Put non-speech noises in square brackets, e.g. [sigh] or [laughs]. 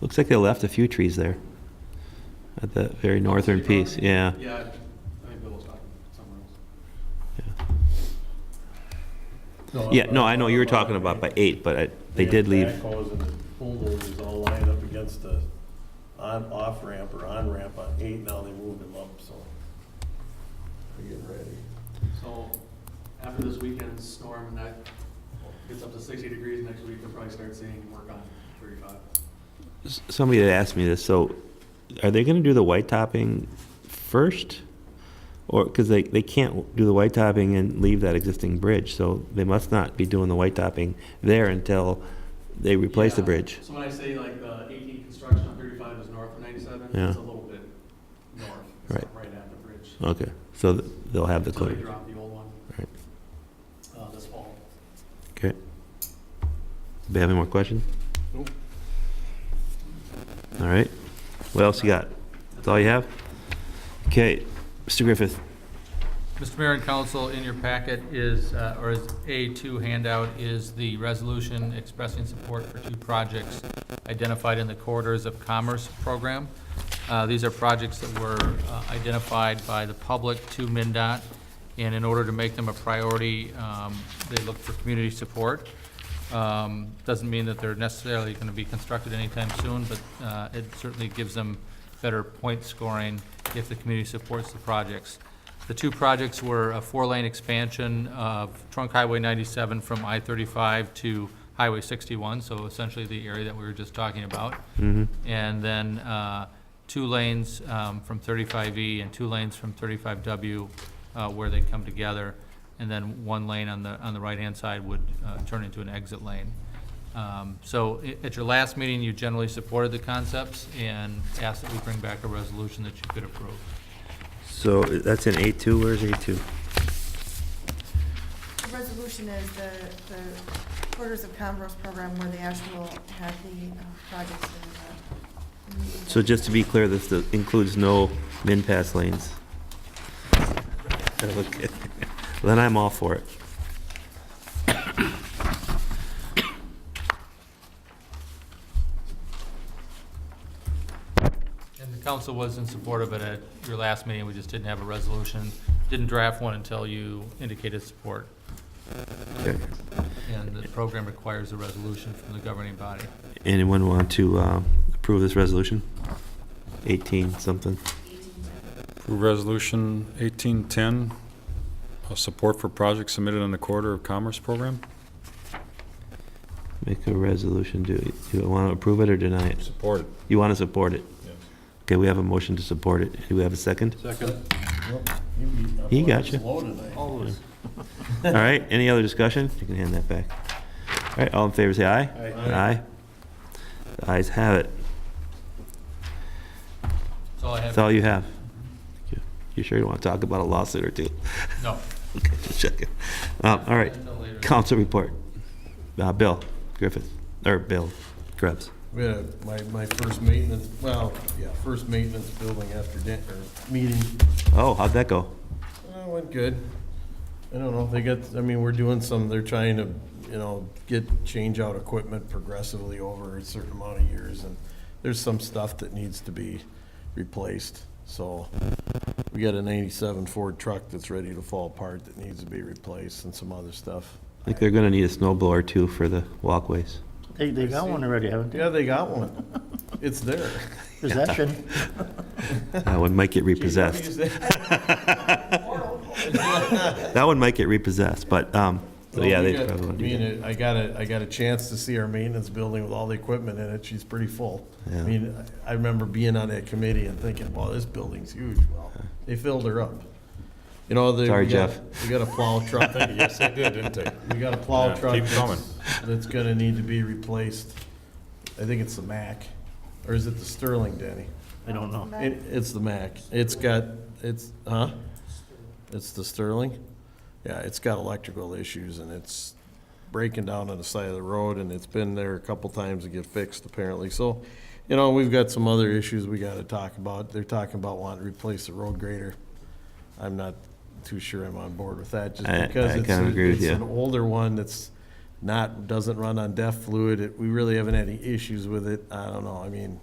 Looks like they left a few trees there at that very northern piece, yeah. [laughs] Yeah, I think Bill was talking somewhere else. Yeah, no, I know you were talking about by eight, but I- they had did leave, Backhoes and bulldozers all lined up against the on, off ramp or on ramp on eight, now they moved them up, so. They're getting ready. So after this weekend's storm and that gets up to sixty degrees next week, we'll probably start seeing work on thirty-five. S- somebody had asked me this, so are they gonna do the white topping first? Or, because they, they can't do the white topping and leave that existing bridge, so they must not be doing the white topping there until they replace the Yeah. bridge. So when I say like the eighteen construction on thirty-five is north of ninety-seven, Yeah. it's a little bit north. It's Right. not Right at the bridge. Okay, so th- they'll have the Until they clear. drop the old one. Right. Uh, this fall. Anybody have any more questions? Nope. All right, what else you got? That's all you have? Okay, Mr. Griffith, Mr. Mayor and Council, in your packet is, uh, or is A2 handout, is the resolution expressing support for two projects identified in the Corridors of Commerce program. Uh, These are projects that were uh, identified by the public to MINDOT, and in order to make them a priority, um, they look for community support. Um, Doesn't mean that they're necessarily going to be constructed anytime soon, but uh, it certainly gives them better point scoring if the community supports the projects. The two projects were a four-lane expansion of Trunk Highway 97 from I-35 to Highway 61, so essentially the area that we were just talking about. And then uh, two lanes um, from 35E and two lanes from 35W uh, where they come together. And then one lane on the, on the right-hand side would uh, turn into an exit lane. Um, So i- at your last meeting, you generally supported the concepts and asked that we bring back a resolution that you could approve. so that's in A2, where's A2? The resolution is the, the Quarters of Commerce program where the actual had the uh, projects in the. in the- So just to be clear, this does- includes no min pass lanes? [laughs] Okay. Then I'm all for it. And the council was in support of it at your last meeting, we just didn't have a resolution, didn't draft one until you indicated support. Okay. And the program requires a resolution from the governing body. Anyone want to um, approve this resolution? 18 something. Approve Resolution 1810, uh, support for projects submitted on the Corridor of Commerce Program. Make a resolution. Do do you want to approve it or deny it? Support. You want to support it? Yes. Okay, we have a motion to support it. Do we have a [laughs] second? Second. He got you. Slow tonight. All right, any other discussion? You can hand that back. All right, all in favor, say aye. Aye. The ayes have it. That's all I That's have. all you have. You- You sure you want to talk about a lawsuit or two? [laughs] No. Okay, just checking. Um, All right, Until later. council report. Uh, Bill Griffith, or Bill Krebs. We had a- my, my first maintenance, well, yeah, first maintenance building after dinner, meeting. Oh, how'd that go? Uh, went good. I don't know, they got, I mean, we're doing some, they're trying to, you know, get, change out equipment progressively over a certain amount of years, and there's some stuff that needs to be replaced, so. We got a ninety-seven Ford truck that's ready to fall apart that needs to be replaced and some other stuff. I think they're gonna need a snow blower too for the [laughs] walkways. They, they got one already, haven't they? Yeah, they got one. It's there. Possession. That one might get repossessed. [laughs] That one might get repossessed, but, um, so yeah, they probably I want to do that. mean, I got a, I got a chance to see our maintenance building with all the equipment in it, she's pretty full. I Yeah. mean, I I remember being on that committee and thinking, wow, this building's huge, well, they filled her up. You know, they. Sorry, we got- Jeff. We got a plow [laughs] truck, yes, they did, didn't they? we got a plow Yeah, truck. keep that's- coming. That's gonna need to be replaced, I think it's the Mack, or is it the Sterling, Danny? I don't know. It, it's the Mac. It's got, it's, huh? It's the Sterling? Yeah, it's got electrical issues and it's breaking down on the side of the road and it's been there a couple times to get fixed apparently. So, you know, we've got some other issues we gotta talk about. They're talking about wanting to replace the road grader. I'm not too sure I'm on board with that just I- because I it's, kinda agree with it's you. an older one that's, not, doesn't run on DEF fluid. It- We really haven't had any issues with it. I don't know, I mean,